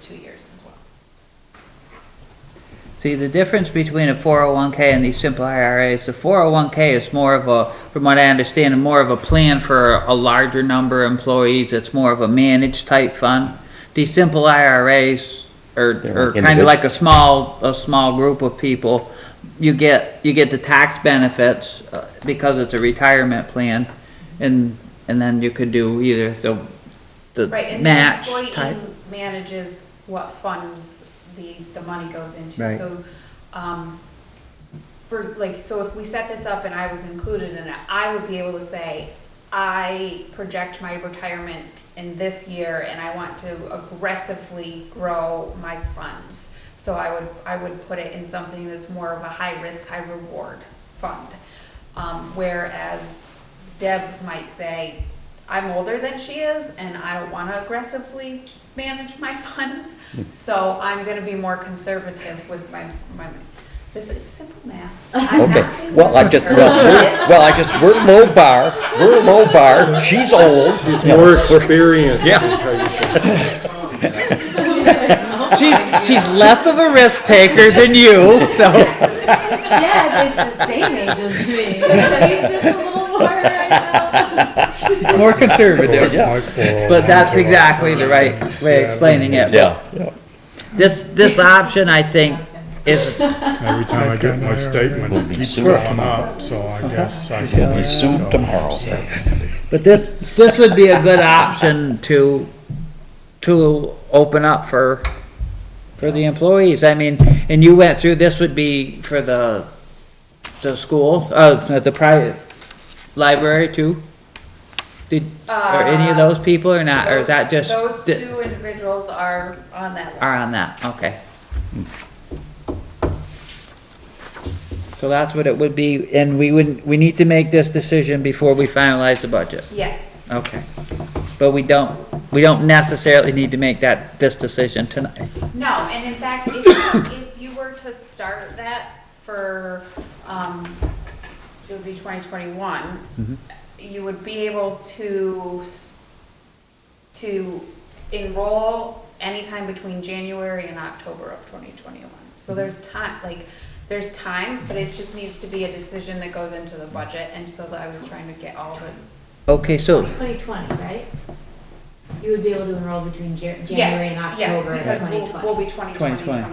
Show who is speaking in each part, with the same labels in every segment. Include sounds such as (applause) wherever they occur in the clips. Speaker 1: two years as well.
Speaker 2: See, the difference between a 401K and these simple IRAs, the 401K is more of a, from what I understand, more of a plan for a larger number of employees. It's more of a managed type fund. These simple IRAs are, are
Speaker 3: like
Speaker 2: kind
Speaker 3: individ-
Speaker 2: of like a small, a small group of people. You get, you get the tax benefits uh, because it's a retirement plan and, and then you could do either the, the
Speaker 1: Right, and
Speaker 2: match
Speaker 1: the employee
Speaker 2: type.
Speaker 1: manages what funds the, the money goes into.
Speaker 2: Right.
Speaker 1: So, um, for, like, so if we set this up and I was included in it, I would be able to say, I project my retirement in this year and I want to aggressively grow my funds. So I would, I would put it in something that's more of a high-risk, high-reward fund. Um, whereas Deb might say, I'm older than she is and I don't want to aggressively manage my (laughs) funds, so I'm going to be more conservative with my, my, this is simple
Speaker 3: (laughs)
Speaker 1: math. I'm not
Speaker 3: Okay,
Speaker 1: being
Speaker 3: well, I just,
Speaker 1: conservative.
Speaker 3: well, we're- well, I just, we're low bar, we're low bar, she's old.
Speaker 4: He's more experienced.
Speaker 3: Yeah.
Speaker 4: is how you should-
Speaker 2: She's, she's less of a risk taker than you, so.
Speaker 5: Deb is the same age as me.
Speaker 1: (laughs)
Speaker 5: She's just a little more right
Speaker 2: More conservative. But that's exactly the right way of explaining it.
Speaker 3: Yeah,
Speaker 2: This, this option, I think, is,
Speaker 6: Every time I get my statement,
Speaker 3: We'll
Speaker 6: it
Speaker 3: be
Speaker 6: keeps
Speaker 3: sued
Speaker 6: going
Speaker 3: tomorrow.
Speaker 6: up, so
Speaker 2: Uh-huh.
Speaker 6: I guess I can.
Speaker 3: we'll be sued tomorrow.
Speaker 2: but this, this would be a good option to, to open up for, for the employees. I mean, and you went through, this would be for the, the school, uh, the private library too? Did, are any of those people or not, (laughs) or is that just?
Speaker 1: Those those two individuals are on that list.
Speaker 2: are on that, okay. So that's what it would be, and we would, we need to make this decision before we finalize the budget,
Speaker 1: Yes,
Speaker 2: okay. But we don't, we don't necessarily need to make that, this decision tonight.
Speaker 1: no, and in fact, if, you- if you were to start that for, um, it would be twenty
Speaker 2: Mm-hmm.
Speaker 1: twenty-one, you would be able to, s- to enroll anytime between January and October of twenty twenty-one.
Speaker 2: Mm-hmm.
Speaker 1: So there's time, like, there's time, but it just needs to be a decision that goes into the budget, and so I was trying to get all the,
Speaker 2: Okay, so,
Speaker 5: now. Twenty twenty, right? You would be able to enroll between Jan- January and
Speaker 1: yes, yeah,
Speaker 5: October of
Speaker 1: because
Speaker 5: twenty
Speaker 1: we'll, we'll
Speaker 5: twenty.
Speaker 1: be twenty twenty,
Speaker 2: 2020.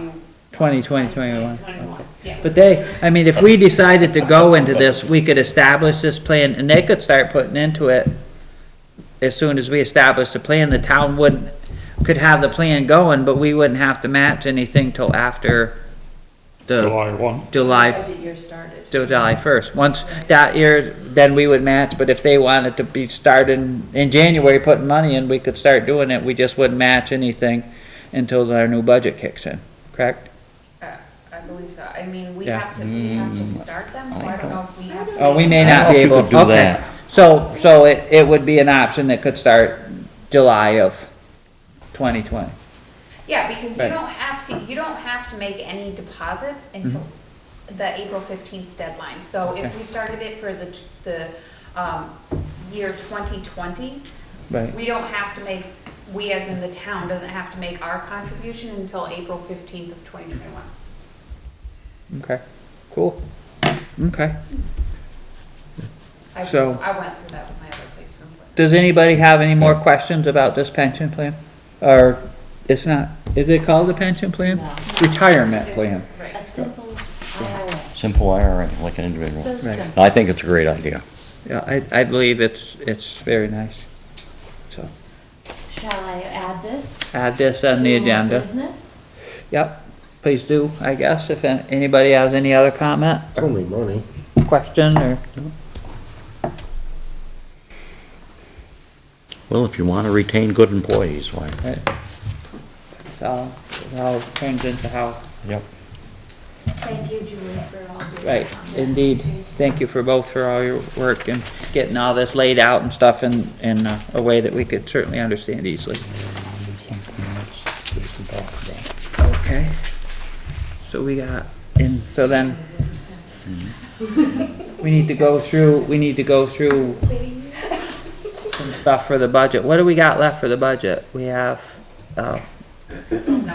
Speaker 1: twenty
Speaker 2: twenty, twenty, twenty-one.
Speaker 1: Yeah.
Speaker 2: But they, I mean, if we decided to go into this, we could establish this plan, and they could start putting into it as soon as we establish the plan, the town would, could have the plan going, but we wouldn't have to match anything till after the
Speaker 6: July one.
Speaker 2: July,
Speaker 5: year started.
Speaker 2: till July first. Once that year, then we would match, but if they wanted to be starting in January, putting money in, we could start doing it, we just wouldn't match anything until our new budget kicks in, correct?
Speaker 1: Uh, I believe so. I mean, we
Speaker 2: Yeah.
Speaker 1: have to, we have to
Speaker 2: Mm.
Speaker 1: start them, so I don't know if we have.
Speaker 2: Oh, we may
Speaker 3: I
Speaker 2: not
Speaker 3: don't
Speaker 2: be
Speaker 3: think we
Speaker 2: able,
Speaker 3: could do
Speaker 2: okay.
Speaker 3: that.
Speaker 2: So, so it, it would be an option that could start July of twenty twenty.
Speaker 1: Yeah, because you
Speaker 2: Right. Mm-hmm.
Speaker 1: don't have to, you don't have to make any deposits until the April fifteenth deadline. So if
Speaker 2: Okay.
Speaker 1: we started it for the, t- the, um, year twenty twenty,
Speaker 2: Right.
Speaker 1: we don't have to make, we as in the town doesn't have to make our contribution until April fifteenth of twenty twenty-one.
Speaker 2: Okay, cool. Okay.
Speaker 1: I,
Speaker 2: So-
Speaker 1: I went through that with my other placement plan.
Speaker 2: Does anybody have any more questions about this pension plan? Or, it's not, is it called a pension plan?
Speaker 5: No.
Speaker 2: Retirement
Speaker 1: It's-
Speaker 2: plan.
Speaker 1: Right.
Speaker 5: A simple IRA,
Speaker 3: Simple IRA, like an individual.
Speaker 5: so simple.
Speaker 3: I think it's a great idea.
Speaker 2: Yeah, I, I believe it's, it's very nice. So,
Speaker 5: Shall I add this?
Speaker 2: add this on the
Speaker 5: to
Speaker 2: agenda.
Speaker 5: Business?
Speaker 2: Yep, please do, I guess, if an- anybody has any other comment,
Speaker 4: It's only money.
Speaker 2: question, or?
Speaker 3: Well, if you want to retain good employees, why?
Speaker 2: Right. So, it all turns into how,
Speaker 3: Yep.
Speaker 5: Thank you, Julie, for all your.
Speaker 2: right,
Speaker 5: comments.
Speaker 2: indeed. Thank you for both for all your work and getting all this laid out and stuff in, in uh, a way that we could certainly understand easily.
Speaker 6: Something else they can talk about.
Speaker 2: Okay. So we got, and so then, we need to go through, we need to go through some stuff for the budget. What do we got left for the budget? We have, uh,